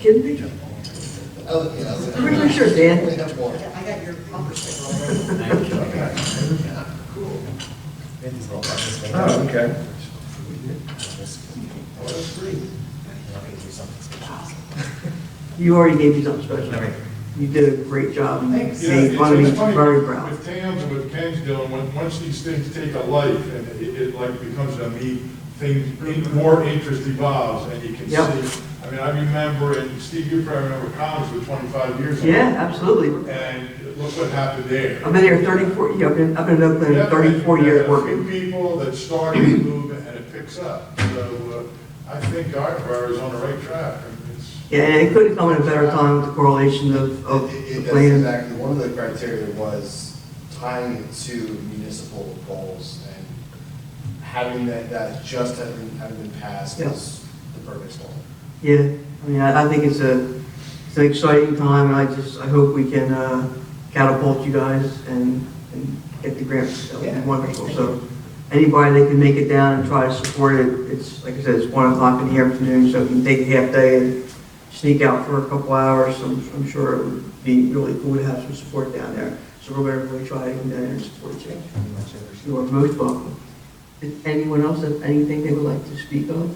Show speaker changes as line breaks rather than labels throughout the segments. Kidding picture.
Oh, yeah.
Three pictures, Dan.
We have more.
I got your bumper sticker already.
Thank you.
Oh, okay.
You already gave me something special. You did a great job. You
Yeah,
made
it's
fun of me,
it's funny
very proud.
With Tams and with Ken's doing, when, once these things take a life, and it, it like becomes a me, things, in- more interest evolves, and you can see.
Yep.
I mean, I remember, and Steve, you probably remember Collins for twenty-five years. ago,
Yeah, absolutely.
And look what happened there.
I've been here 34, yeah, I've been, I've been in Oakland
Yeah,
34
but there are
years
a
working.
few People that started the movement and it picks up, so, uh, I think our bar is on the right track, I mean, it's.
Yeah, and it couldn't come at a better time with the correlation of, of
It-
the
it- That's
plan.
exactly, one of the criteria was tying it to municipal goals and having that, that just having, having been passed
Yeah.
was the perfect storm.
Yeah, I mean, I, I think it's a, it's an exciting time, and I just, I hope we can, uh, catapult you guys and, and get the grants, that would be
Yeah,
wonderful,
thank
so. Anybody that can make it down and try to support it, it's, like I said, it's one o'clock in the afternoon, so if you can take a half day and sneak out for a couple hours, I'm, I'm sure it would be really cool to have some support down there. So we're gonna really try to get down there and support you. You are most welcome. Did anyone else have anything they would like to speak on?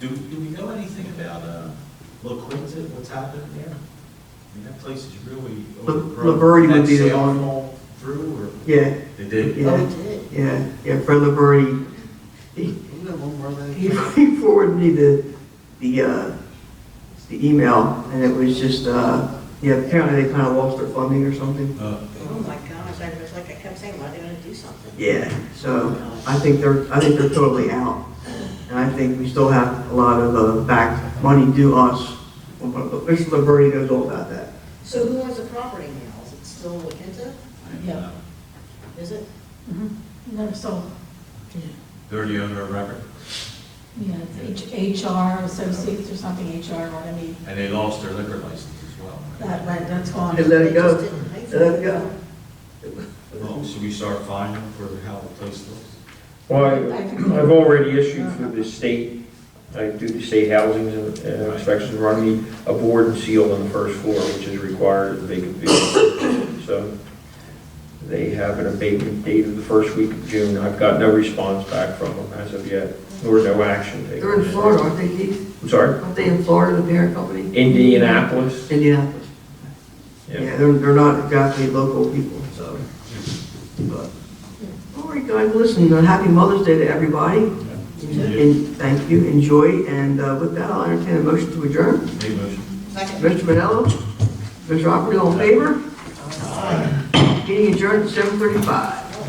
Do, do we know anything about, uh, La Quinta, what's happening there? I mean, that place is really
La-
overgrown.
La Verde would be the
That sale
one-
fall Through,
Yeah,
or? They did?
Yeah.
Oh, it did.
Yeah, yeah, Fred Liberty, he,
We got one more left.
he he forwarded me the, the, uh, the email, and it was just, uh, yeah, apparently they kind of lost their funding or something.
Uh,
Oh, my gosh, I was like, I kept saying, why didn't I do something?
Yeah, so I think they're, I think they're totally out. And I think we still have a lot of, uh, back money due us. Mr. Liberty knows all about that.
So who owns the property now? Is it still Wakinta?
I don't
Yeah.
know.
Is it?
No, so,
They're the owner of record,
yeah, it's H- HR associates or something, HR, or I mean,
and they lost their liquor license as well. right?
that went, that's gone.
They let it
They just
go.
didn't pay for
They let it go.
Well, should we start fining for how the place looks?
Well, I- I've already issued through the state, I do the state housing uh, inspections, run me a board and seal on the first floor, which is required of vacant building. So they have an abatement date of the first week of June. I've got no response back from them as of yet, nor no action taken.
They're in Florida, aren't they, Keith?
I'm sorry,
Aren't they in Florida, the parent company?
Indianapolis?
Indianapolis.
Yeah.
Yeah, they're, they're not exactly local people, so. but- All right, guys, listen, uh, happy Mother's Day to everybody. And thank you, enjoy, and uh, with that, I'll entertain a motion to adjourn.
Any motion?
Second.
Mr. Manello, Mr. Operate, all in favor? Meeting adjourned at 7:35.